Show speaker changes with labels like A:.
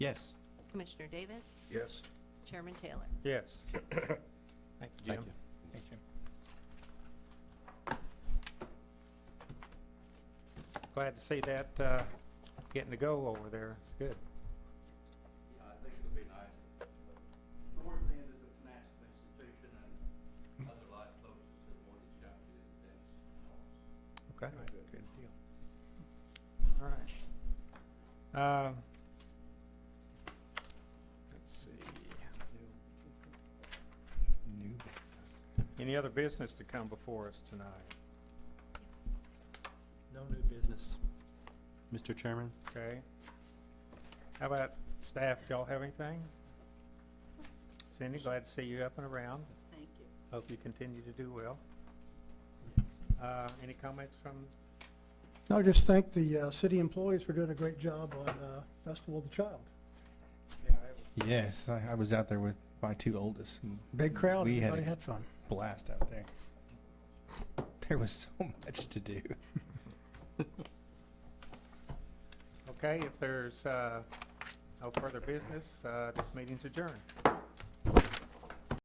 A: Yes.
B: Commissioner Davis,
C: Yes.
B: Chairman Taylor.
D: Yes. Thank you, Jim.
A: Thank you.
D: Thank you. Glad to see that, uh, getting to go over there. It's good.
E: Yeah, I think it'll be nice. North End is a financial institution and other lot closest to the mortgage company is the dentist office.
D: Okay,
A: Good deal.
D: all right. Um, Let's see.
A: New business.
D: Any other business to come before us tonight?
F: No new business. Mr. Chairman?
D: Okay? How about staff? Y'all have anything? Cindy, glad to see you up and around.
B: Thank you.
D: Hope you continue to do well. Uh, Any comments from
G: No, just thank the uh, city employees for doing a great job on uh, Festival of the Child.
A: Yes, I, I was out there with my two oldest. and
G: Big crowd,
A: We had
G: everybody
A: a
G: had fun.
A: blast out there. There was so much to do.
D: Okay, if there's uh, no further business, uh, this meeting's adjourned.